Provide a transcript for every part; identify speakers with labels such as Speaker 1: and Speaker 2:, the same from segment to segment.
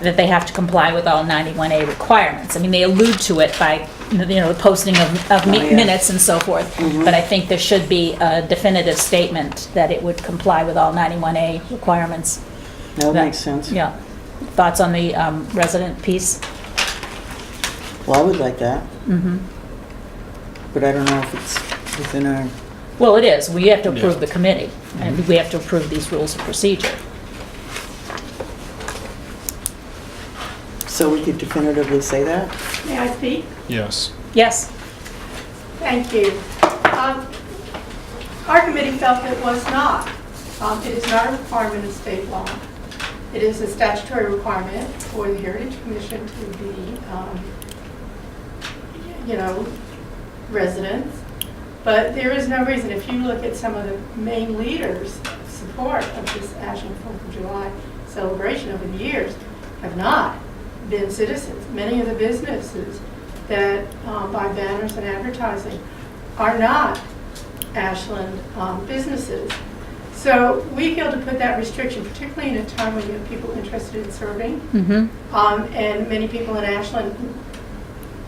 Speaker 1: that they have to comply with all 91A requirements. I mean, they allude to it by, you know, the posting of, of mi-
Speaker 2: Oh, yeah. Mm-hmm.
Speaker 1: minutes and so forth. But I think there should be a definitive statement that it would comply with all 91A requirements.
Speaker 2: That
Speaker 1: That-
Speaker 2: makes sense.
Speaker 1: Yeah. Thoughts on the um, resident piece?
Speaker 2: Well, I would like that.
Speaker 1: Mm-hmm.
Speaker 2: But I don't know if it's within our,
Speaker 1: Well, it is. We have to approve
Speaker 3: Yeah.
Speaker 1: the committee, and we have to approve these rules of procedure.
Speaker 2: so we could definitively say that?
Speaker 4: May I speak?
Speaker 3: Yes.
Speaker 1: Yes?
Speaker 4: Thank you. Um, Our committee felt it was not. Um, It is not a requirement of state law. It is a statutory requirement for the Heritage Commission to be, um, you know, residents. But there is no reason, if you look at some of the main leaders' support of this Ashland Fourth of July celebration over the years, have not been citizens. Many of the businesses that um, buy banners and advertising are not Ashland um, businesses. So we feel to put that restriction, particularly in a time when you have people interested in serving,
Speaker 1: Mm-hmm.
Speaker 4: um, and many people in Ashland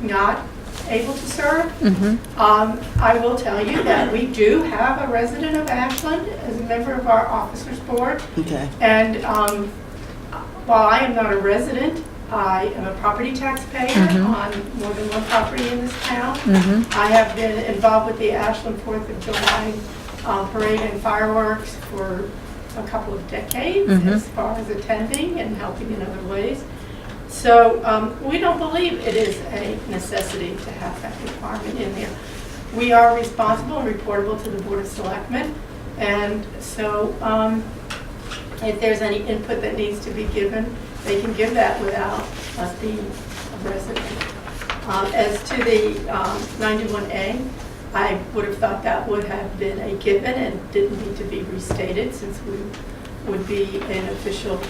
Speaker 4: not able to serve,
Speaker 1: Mm-hmm.
Speaker 4: um, I will tell you that we do have a resident of Ashland as a member of our officers board.
Speaker 2: Okay.
Speaker 4: And um, while I am not a resident, I am a property taxpayer
Speaker 1: Mhm.
Speaker 4: on more than one property in this town.
Speaker 1: Mhm.
Speaker 4: I have been involved with the Ashland Fourth of July uh, parade and fireworks for a couple of decades
Speaker 1: Mhm.
Speaker 4: as far as attending and helping in other ways. So um, we don't believe it is a necessity to have that requirement in there. We are responsible and reportable to the Board of Selectmen, and so um, if there's any input that needs to be given, they can give that without us being a resident. Um, As to the um, 91A, I would have thought that would have been a given and didn't need to be restated since we would be an official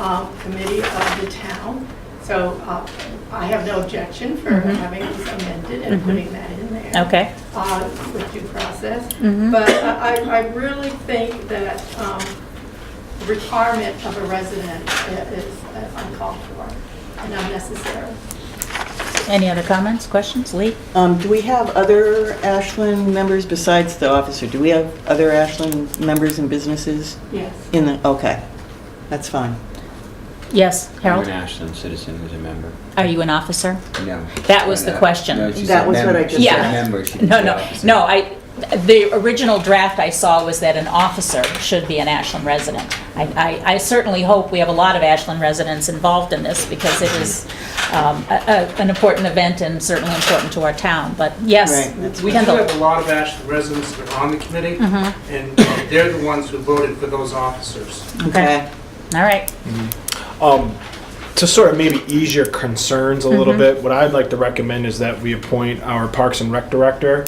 Speaker 4: um, committee of the town. So uh, I have no objection for
Speaker 1: Mhm.
Speaker 4: having this amended and
Speaker 1: Mhm.
Speaker 4: putting that in there
Speaker 1: Okay.
Speaker 4: uh, with due process.
Speaker 1: Mhm.
Speaker 4: But I, I I really think that um, the requirement of a resident i- is uh, uncalled for and unnecessary.
Speaker 1: Any other comments, questions? Lee?
Speaker 2: Um, do we have other Ashland members besides the officer? Do we have other Ashland members and businesses
Speaker 4: Yes.
Speaker 2: in the, okay, that's fine.
Speaker 1: Yes,
Speaker 5: I'm
Speaker 1: Harold?
Speaker 5: an Ashland citizen who's a member.
Speaker 1: Are you an officer?
Speaker 5: No.
Speaker 1: That was the
Speaker 5: No,
Speaker 1: question.
Speaker 5: no, she
Speaker 2: That
Speaker 5: said
Speaker 2: was what
Speaker 5: member.
Speaker 2: I just
Speaker 5: She said
Speaker 1: Yeah.
Speaker 5: member, she didn't
Speaker 1: No,
Speaker 5: say
Speaker 1: no,
Speaker 5: officer.
Speaker 1: no, I, the original draft I saw was that an officer should be an Ashland resident. I, I I certainly hope we have a lot of Ashland residents involved in this because it is um, a- a- an important event and certainly important to our town, but yes,
Speaker 2: Right, that's
Speaker 6: We do
Speaker 1: Kendall.
Speaker 6: have a lot of Ashland residents that are on the committee,
Speaker 1: Mhm.
Speaker 6: and uh, they're the ones who voted for those officers.
Speaker 1: Okay. All right,
Speaker 3: Um, to sort of maybe ease your concerns a little bit, what I'd like to recommend is that we appoint our Parks and Rec Director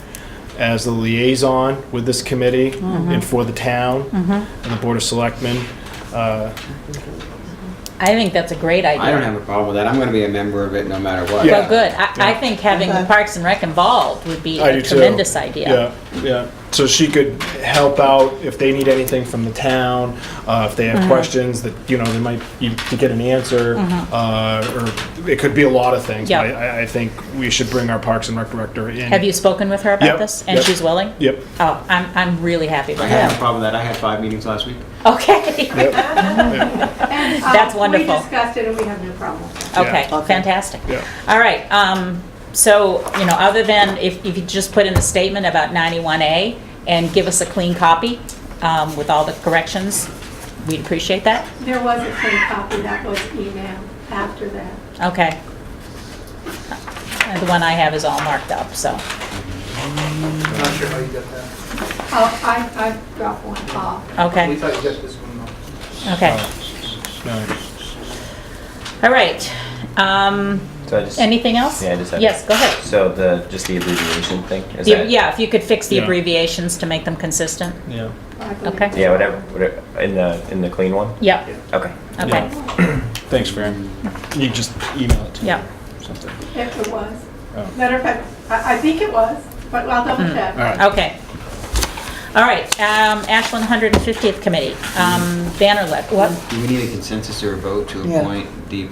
Speaker 3: as the liaison with this committee and for the town and the Board of Selectmen. Uh,
Speaker 1: I think that's a great idea.
Speaker 5: I don't have a problem with that. I'm gonna be a member of it no matter what.
Speaker 3: Yeah.
Speaker 1: Well, good, I, I
Speaker 3: Yeah.
Speaker 1: think having the
Speaker 2: Okay.
Speaker 1: Parks and Rec involved would be
Speaker 3: I
Speaker 1: a
Speaker 3: do too.
Speaker 1: tremendous idea.
Speaker 3: Yeah, yeah. So she could help out if they need anything from the town, uh, if they have
Speaker 1: Mm-hmm.
Speaker 3: questions that, you know, they might, you to get an answer,
Speaker 1: Mm-hmm.
Speaker 3: uh, or it could be a lot of things.
Speaker 1: Yeah.
Speaker 3: But I, I- I think we should bring our Parks and Rec Director in.
Speaker 1: Have you spoken with her about
Speaker 3: Yep,
Speaker 1: this? And
Speaker 3: yep.
Speaker 1: she's willing?
Speaker 3: Yep.
Speaker 1: Oh, I'm, I'm really happy
Speaker 5: I
Speaker 1: about
Speaker 5: have
Speaker 1: that.
Speaker 5: no problem with that. I had five meetings last week.
Speaker 1: Okay.
Speaker 4: And, uh,
Speaker 1: That's wonderful.
Speaker 4: We discussed it and we have no problem with that.
Speaker 1: Okay,
Speaker 2: Okay.
Speaker 1: fantastic.
Speaker 3: Yeah.
Speaker 1: All right, um, so, you know, other than if, if you just put in a statement about 91A and give us a clean copy, um, with all the corrections, we'd appreciate that.
Speaker 4: There was a clean copy that was emailed after that.
Speaker 1: Okay. Uh, The one I have is all marked up, so,
Speaker 6: I'm not sure how you got that.
Speaker 4: Oh, I, I dropped one off.
Speaker 6: We
Speaker 1: okay,
Speaker 6: thought you got this one though.
Speaker 1: okay.
Speaker 3: No.
Speaker 1: All right, um,
Speaker 7: So I just,
Speaker 1: anything else?
Speaker 7: Yeah, I just have-
Speaker 1: Yes, go ahead.
Speaker 7: so the, just the abbreviation thing, is
Speaker 1: You-
Speaker 7: that?
Speaker 1: Yeah, if you could fix the
Speaker 3: Yeah.
Speaker 1: abbreviations to make them consistent.
Speaker 3: Yeah.
Speaker 4: I believe.
Speaker 1: Okay.
Speaker 7: Yeah, whatever, whatever, in the, in the clean one?
Speaker 1: Yep,
Speaker 7: Okay.
Speaker 1: okay,
Speaker 3: Thanks, Fran. You just email it to me.
Speaker 1: Yeah.
Speaker 3: or Something.
Speaker 4: If it was.
Speaker 3: Oh.
Speaker 4: Matter of fact, I, I think it was, but I'll
Speaker 1: Hmm.
Speaker 4: double check.
Speaker 3: All right.
Speaker 1: okay. All right, um, Ashland 150th Committee, um, banner lift, what,
Speaker 5: Do we need a consensus or a vote to
Speaker 2: Yeah.
Speaker 5: appoint the